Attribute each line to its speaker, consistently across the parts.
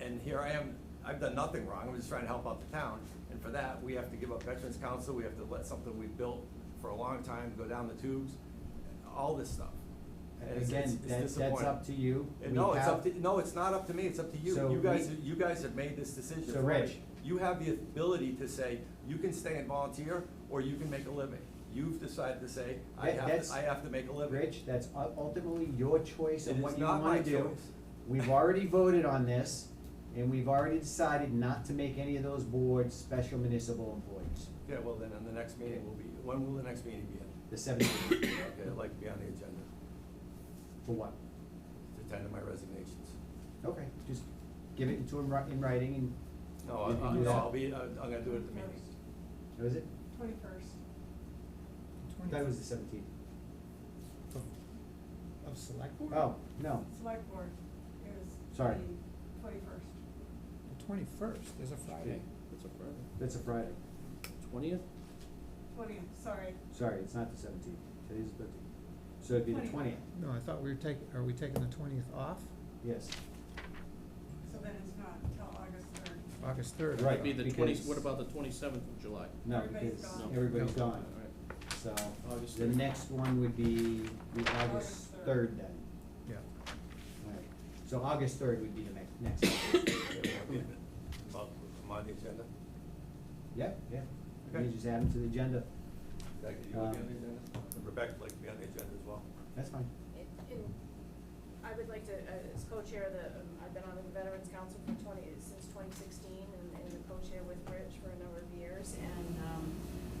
Speaker 1: and here I am, I've done nothing wrong, I'm just trying to help out the town. And for that, we have to give up Veterans Council, we have to let something we've built for a long time go down the tubes, all this stuff. And it's-
Speaker 2: Again,
Speaker 1: it's- it's
Speaker 2: that- that's
Speaker 1: disappointing.
Speaker 2: up to you.
Speaker 1: And
Speaker 2: We
Speaker 1: No, it's up
Speaker 2: have-
Speaker 1: to, no, it's not up to me, it's up to you.
Speaker 2: So
Speaker 1: You guys,
Speaker 2: we-
Speaker 1: you guys have made this decision
Speaker 2: So
Speaker 1: for me.
Speaker 2: Rich-
Speaker 1: You have the ability to say, you can stay and volunteer, or you can make a living. You've decided to say, I
Speaker 2: That-
Speaker 1: have,
Speaker 2: that's-
Speaker 1: to- I have to make a living.
Speaker 2: Rich, that's u- ultimately your choice
Speaker 1: It
Speaker 2: of
Speaker 1: is
Speaker 2: what you
Speaker 1: not my
Speaker 2: wanna do.
Speaker 1: choice.
Speaker 2: We've already voted on this, and we've already decided not to make any of those boards special municipal employees,
Speaker 1: Yeah, well, then, on the next meeting will be, when will the next meeting be in?
Speaker 2: the seventeenth,
Speaker 1: Okay, I'd like to be on the agenda
Speaker 2: for what?
Speaker 1: to tender my resignations.
Speaker 2: Okay, just give it to him in writing and.
Speaker 1: No,
Speaker 2: You
Speaker 1: I-
Speaker 2: can
Speaker 1: I-
Speaker 2: do
Speaker 1: no,
Speaker 2: that.
Speaker 1: I'll be, uh, I'm gonna do it at the meeting.
Speaker 2: What is it?
Speaker 3: Twenty-first.
Speaker 2: I thought it was the seventeenth.
Speaker 4: Of select board?
Speaker 2: Oh, no,
Speaker 3: Select board is
Speaker 2: Sorry.
Speaker 3: the twenty-first.
Speaker 4: The twenty-first, there's a Friday.
Speaker 5: It's a Friday.
Speaker 2: that's a Friday.
Speaker 5: Twentieth?
Speaker 3: Twentieth, sorry.
Speaker 2: Sorry, it's not the seventeenth. Today's the fifteenth. So it'd be the twentieth,
Speaker 3: Twentieth.
Speaker 4: No, I thought we were taking, are we taking the twentieth off?
Speaker 2: yes.
Speaker 3: So then it's not until August third.
Speaker 4: August third.
Speaker 2: Right.
Speaker 5: It'd be the twenty,
Speaker 2: Because-
Speaker 5: what about the twenty-seventh of July?
Speaker 2: No,
Speaker 3: Everybody's
Speaker 2: because
Speaker 3: gone.
Speaker 2: everybody's
Speaker 4: No.
Speaker 2: gone.
Speaker 5: Alright.
Speaker 2: So
Speaker 5: August
Speaker 2: the
Speaker 5: third.
Speaker 2: next one would be the August
Speaker 3: August
Speaker 2: third
Speaker 3: third.
Speaker 2: then.
Speaker 4: Yeah.
Speaker 2: Alright, so August third would be the next, next. one.
Speaker 1: Yeah, we'll be in it. Well, I'm on the agenda.
Speaker 2: Yeah, yeah. You
Speaker 1: Okay.
Speaker 2: just add them to the agenda.
Speaker 1: Rebecca, you
Speaker 2: Uh,
Speaker 1: will be on the agenda? Rebecca, like, to be on the agenda as well.
Speaker 2: That's fine.
Speaker 6: And and I would like to, uh, as co-chair, of the, um, I've been on the Veterans Council for twenty, since twenty sixteen, and, and the co-chair with Rich for a number of years, and, um,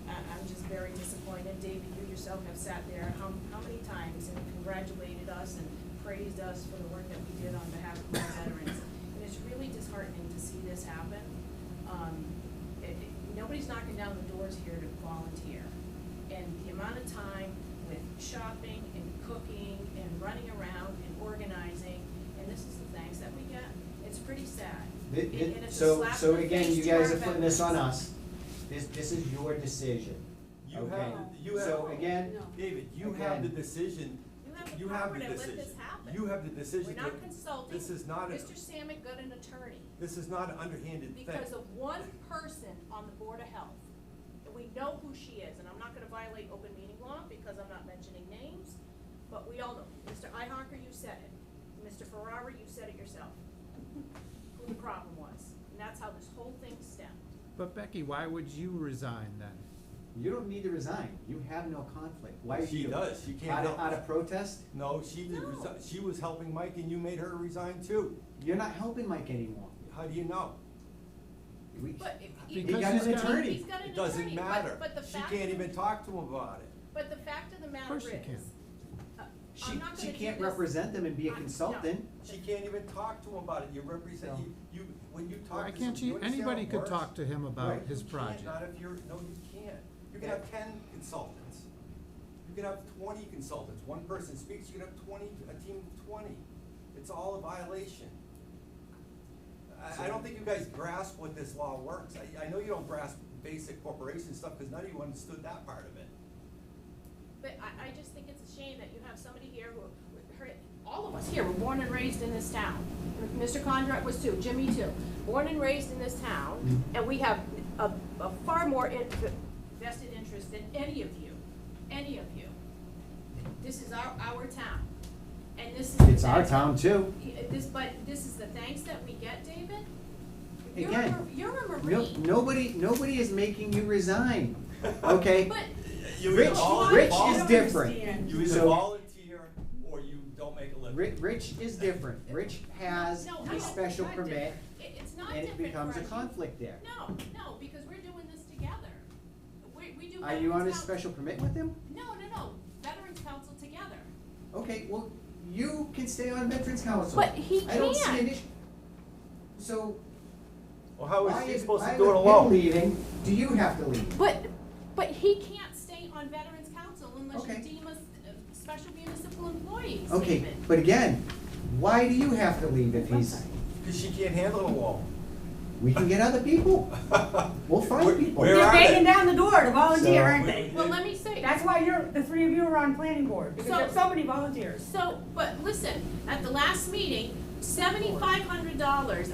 Speaker 6: I, I'm just very disappointed, David, you yourself have sat there how, how many times and congratulated us and praised us for the work that we did on behalf of our veterans. And it's really disheartening to see this happen, um, it, it- nobody's knocking down the doors here to volunteer. And the amount of time with shopping and cooking and running around and organizing, and this is the thanks that we get, it's pretty sad.
Speaker 2: Thi-
Speaker 6: And-
Speaker 2: thi-
Speaker 6: and it's a
Speaker 2: so,
Speaker 6: slap
Speaker 2: so
Speaker 6: in the
Speaker 2: again,
Speaker 6: face
Speaker 2: you
Speaker 6: to our
Speaker 2: guys are putting this on
Speaker 6: veterans.
Speaker 2: us. This, this is your decision.
Speaker 1: You
Speaker 2: okay?
Speaker 1: have, you have.
Speaker 2: So again,
Speaker 6: No.
Speaker 1: David, you have the
Speaker 2: Again.
Speaker 1: decision.
Speaker 6: You have the
Speaker 1: You have
Speaker 6: power
Speaker 1: the
Speaker 6: to let
Speaker 1: decision.
Speaker 6: this happen.
Speaker 1: You have the decision.
Speaker 6: We're
Speaker 1: to-
Speaker 6: not consulting.
Speaker 1: This is not, a-
Speaker 6: Mr. Samick got an attorney
Speaker 1: this is not an underhanded thing.
Speaker 6: because of one person on the Board of Health. And we know who she is, and I'm not gonna violate open meeting law because I'm not mentioning names, but we all know. Mr. Ihawker, you said it. Mr. Ferrara, you said it yourself. Who the problem was. And that's how this whole thing stemmed.
Speaker 4: But Becky, why would you resign then?
Speaker 2: you don't need to resign. You have no conflict. Why are you?
Speaker 1: She does. She can't
Speaker 2: Out of,
Speaker 1: help
Speaker 2: out
Speaker 1: it.
Speaker 2: of protest?
Speaker 1: No, she did
Speaker 6: No.
Speaker 1: resi- she was helping Mike and you made her resign too.
Speaker 2: You're not helping Mike anymore.
Speaker 1: How do you know?
Speaker 2: We,
Speaker 6: But if.
Speaker 2: he
Speaker 4: Because
Speaker 2: got
Speaker 4: he's
Speaker 2: an
Speaker 4: got-
Speaker 2: attorney.
Speaker 6: He's got an attorney,
Speaker 1: It doesn't
Speaker 6: but-
Speaker 1: matter.
Speaker 6: But the
Speaker 1: She
Speaker 6: fact.
Speaker 1: can't even talk to him about it.
Speaker 6: But the fact of the matter is.
Speaker 4: course she can.
Speaker 6: uh,
Speaker 2: She,
Speaker 6: I'm not
Speaker 2: she
Speaker 6: gonna do
Speaker 2: can't
Speaker 6: this-
Speaker 2: represent them and be a
Speaker 6: I- no.
Speaker 2: consultant.
Speaker 1: She can't even talk to him about it. You represent,
Speaker 2: No.
Speaker 1: you, you, when you talk
Speaker 4: Why
Speaker 1: to
Speaker 4: can't
Speaker 1: some- you
Speaker 4: you,
Speaker 1: understand how
Speaker 4: anybody
Speaker 1: it
Speaker 4: could
Speaker 1: works?
Speaker 4: talk to him about
Speaker 1: Right,
Speaker 4: his
Speaker 1: you can't,
Speaker 4: project.
Speaker 1: Not if you're, no, you can't. You can
Speaker 2: Yeah.
Speaker 1: have ten consultants. You can have twenty consultants. One person speaks, you can have twenty, a team of twenty. It's all a violation. I, I don't think you guys grasp what this law works. I, I know you don't grasp basic corporation stuff, cause none of you understood that part of it.
Speaker 6: But I, I just think it's a shame that you have somebody here who, her, all of us here were born and raised in this town. Mr. Conrad was too, Jimmy too, born and raised in this town,
Speaker 2: Mm-hmm.
Speaker 6: and we have a, a far more in- vested interest than any of you, any of you. This is our, our town, and this is.
Speaker 2: It's our town too.
Speaker 6: Yeah, uh, This, but this is the thanks that we get, David? You're a
Speaker 2: Again,
Speaker 6: mar- You're
Speaker 2: No,
Speaker 6: a Marine.
Speaker 2: nobody, nobody is making you resign, okay?
Speaker 6: But,
Speaker 1: You
Speaker 2: Rich-
Speaker 1: either all-
Speaker 2: Rich
Speaker 1: all-
Speaker 2: is
Speaker 3: I don't
Speaker 2: different.
Speaker 3: understand.
Speaker 1: You either
Speaker 2: So-
Speaker 1: volunteer or you don't make a living.
Speaker 2: Ri- Rich is different. Rich has
Speaker 6: no, I
Speaker 2: a
Speaker 6: don't,
Speaker 2: special
Speaker 6: it's not
Speaker 2: permit
Speaker 6: different. It- it's not
Speaker 2: and it
Speaker 6: different
Speaker 2: becomes a
Speaker 6: for us.
Speaker 2: conflict there.
Speaker 6: No, no, because we're doing this together. We, we do.
Speaker 2: Are you on a
Speaker 6: Veterans Council-
Speaker 2: special permit with him?
Speaker 6: No, no, no, Veterans Council together.
Speaker 2: Okay, well, you can stay on Veterans Council.
Speaker 6: But he
Speaker 2: I don't see an
Speaker 6: can't.
Speaker 2: issue. So
Speaker 1: Well, how
Speaker 2: why
Speaker 1: is she
Speaker 2: is,
Speaker 1: supposed
Speaker 2: why
Speaker 1: to
Speaker 2: with
Speaker 1: do it
Speaker 2: him
Speaker 1: alone?
Speaker 2: leaving, do you have to leave?
Speaker 6: But, but he can't stay on Veterans Council unless
Speaker 2: Okay.
Speaker 6: you deem us uh, special municipal employees,
Speaker 2: Okay,
Speaker 6: David.
Speaker 2: but again, why do you have to leave if he's,
Speaker 1: Cause she can't handle it all.
Speaker 2: we can get other people, we'll
Speaker 1: Where-
Speaker 2: find people.
Speaker 1: where
Speaker 3: They're
Speaker 1: are
Speaker 3: banging
Speaker 1: they?
Speaker 3: down the door to volunteer,
Speaker 2: So-
Speaker 3: aren't they?
Speaker 6: Well, let me say.
Speaker 3: That's why you're, the three of you are on planning board, because
Speaker 6: So-
Speaker 3: if somebody volunteers.
Speaker 6: So, but listen, at the last meeting, seventy-five hundred dollars